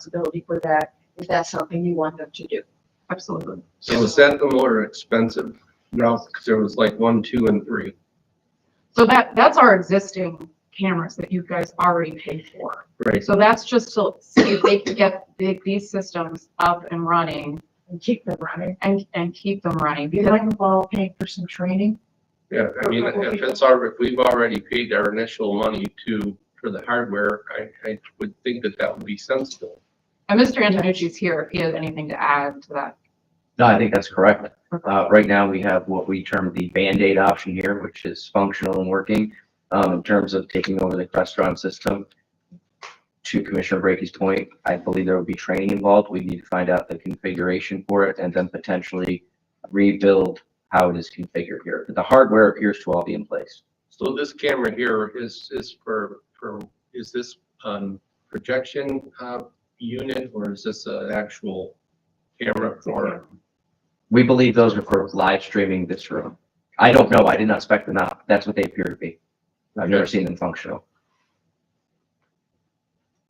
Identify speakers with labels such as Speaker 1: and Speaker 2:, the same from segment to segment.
Speaker 1: responsibility for that if that's something you want them to do.
Speaker 2: Absolutely.
Speaker 3: So was that the more expensive route? Because there was like one, two, and three.
Speaker 2: So that, that's our existing cameras that you guys already paid for.
Speaker 3: Right.
Speaker 2: So that's just to see if they can get the- these systems up and running
Speaker 1: And keep them running.
Speaker 2: and, and keep them running.
Speaker 1: You're
Speaker 2: Because
Speaker 1: going to borrow paying for some training?
Speaker 3: Yeah, I mean, if it's our, if we've already paid our initial money to, for the hardware, I, I would think that that would be sensible.
Speaker 2: and Mr. Antonucci's here if he has anything to add to that.
Speaker 4: No, I think that's correct.
Speaker 2: Okay.
Speaker 4: Uh, right now, we have what we term the Band-Aid option here, which is functional and working, um, in terms of taking over the Crestron system. To Commissioner Brady's point, I believe there will be training involved. We need to find out the configuration for it and then potentially rebuild how it is configured here. But The hardware appears to all be in place.
Speaker 3: So this camera here is, is for, for, is this, um, projection, uh, unit or is this an actual camera for?
Speaker 4: We believe those are for live streaming this room. I don't know. I did not spec them out. That's what they appear to be. I've never seen them functional.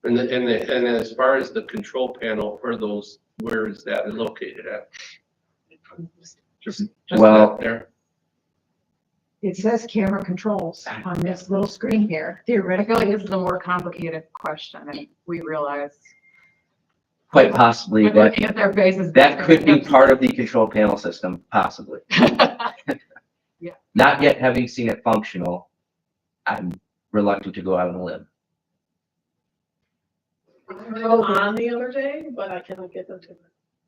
Speaker 3: And the, and the, and as far as the control panel for those, where is that located at? Just, just
Speaker 4: Well-
Speaker 3: that there.
Speaker 1: It says camera controls on this little screen here.
Speaker 2: I feel like
Speaker 1: Theoretically,
Speaker 2: this is a more complicated question and we realize.
Speaker 4: Quite possibly,
Speaker 2: But
Speaker 4: but
Speaker 2: looking at their faces.
Speaker 4: That could be part of the control panel system, possibly. Not yet having seen it functional, I'm reluctant to go out on a limb.
Speaker 5: They were on the other day, but I cannot get them to.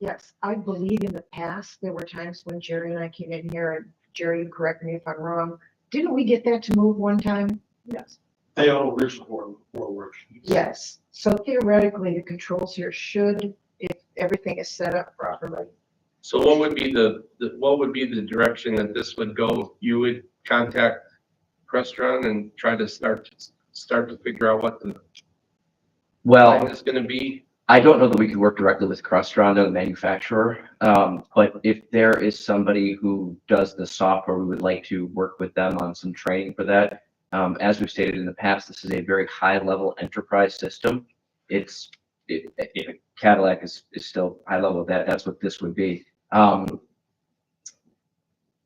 Speaker 1: yes, I believe in the past, there were times when Jerry and I came in here, and Jerry, you correct me if I'm wrong. Didn't we get that to move one time?
Speaker 5: Yes.
Speaker 6: They all reach for, for work.
Speaker 1: Yes. So theoretically, the controls here should, if everything is set up properly.
Speaker 3: So what would be the, the- what would be the direction that this would go? You would contact Crestron and try to start, start to figure out what the
Speaker 4: Well,
Speaker 3: plan is gonna be?
Speaker 4: I don't know that we could work directly with Crestron, the manufacturer, um, but if there is somebody who does the software, we would like to work with them on some training for that. Um, as we've stated in the past, this is a very high-level enterprise system. It's, it, it- Cadillac is, is still high level of that, that's what this would be. Um,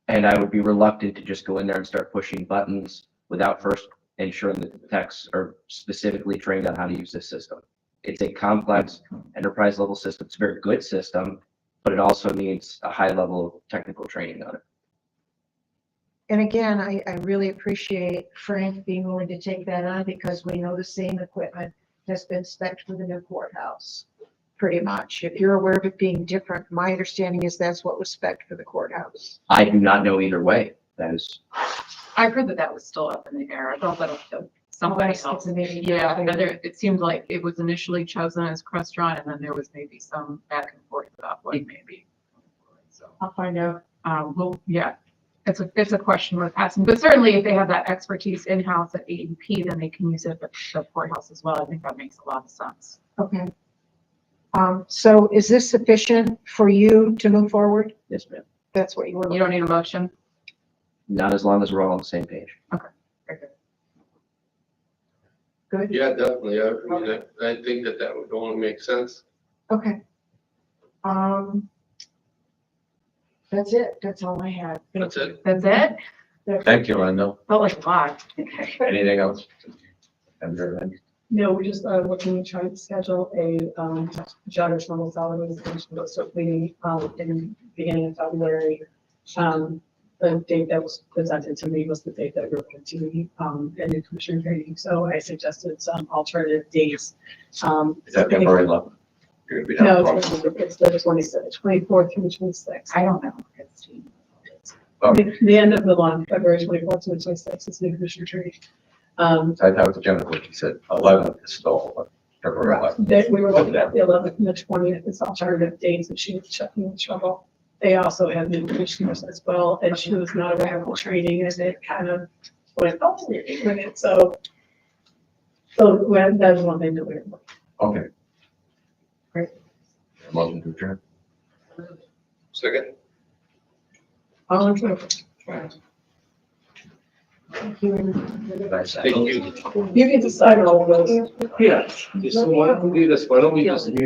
Speaker 4: and I would be reluctant to just go in there and start pushing buttons without first ensuring that the techs are specifically trained on how to use this system it's a complex enterprise level system. It's a very good system, but it also needs a high level of technical training on it.
Speaker 1: And again, I, I really appreciate Frank being willing to take that on because we know the same equipment has been spec for the new courthouse, pretty much. If you're aware of it being different, my understanding is that's what was spec for the courthouse.
Speaker 4: I do not know either way. That is,
Speaker 2: I heard that that was still up in the air. I thought that that somebody
Speaker 1: Unless
Speaker 2: else.
Speaker 1: it's a meeting.
Speaker 2: Oh, Yeah, and there, it seemed like it was initially chosen as Crestron and then there was maybe some back and forth about what maybe. So,
Speaker 1: I'll find out.
Speaker 2: um, well, yeah, it's a, it's a question worth asking, but certainly if they have that expertise in-house at AEP, then they can use it at the courthouse as well. I think that makes a lot of sense.
Speaker 1: Okay. Um, so is this sufficient for you to move forward?
Speaker 4: yes, ma'am.
Speaker 1: That's what you were.
Speaker 2: You don't need a motion?
Speaker 4: Not as long as we're all on the same page.
Speaker 1: Good?
Speaker 3: Yeah, definitely. I, I mean, I- I think that that would only make sense.
Speaker 1: Okay. Um, that's it. That's all I had.
Speaker 3: That's it.
Speaker 2: That's it?
Speaker 7: Thank you, Rhonda.
Speaker 2: Felt like a lot. Okay.
Speaker 7: Anything else? Have there been-
Speaker 5: No, we're just, uh, looking, trying to schedule a, um, judge normal salary extension, but certainly, um, in the beginning of February. Um, the date that was presented to me was the date that we were going to, um, in the commissioner meeting, so I suggested some alternative dates. Um,
Speaker 7: Is that February eleventh?
Speaker 5: No, it's it's the twenty-sixth, twenty-fourth through twenty-sixth.
Speaker 2: I don't know, Christine.
Speaker 7: Oh.
Speaker 5: The the end of the month, February twenty-fourth to twenty-sixth is the commissioner tree. Um,
Speaker 7: I thought it was Jennifer, she said eleventh is still February eleventh.
Speaker 5: that we were looking at the eleventh and the twentieth as alternative dates, and she was checking with trouble. They also had new commissioners as well, and she was not aware of the training, and it kind of went, oh, we're ignorant, so. So when, that's one thing that we're.
Speaker 7: Okay.
Speaker 5: Great.
Speaker 7: Motion to adjourn.
Speaker 3: Second?
Speaker 5: All in favor?
Speaker 1: Thank you.
Speaker 3: Thank you.
Speaker 5: You can decide all of those.
Speaker 3: Yeah. So why don't we do this? Why don't we just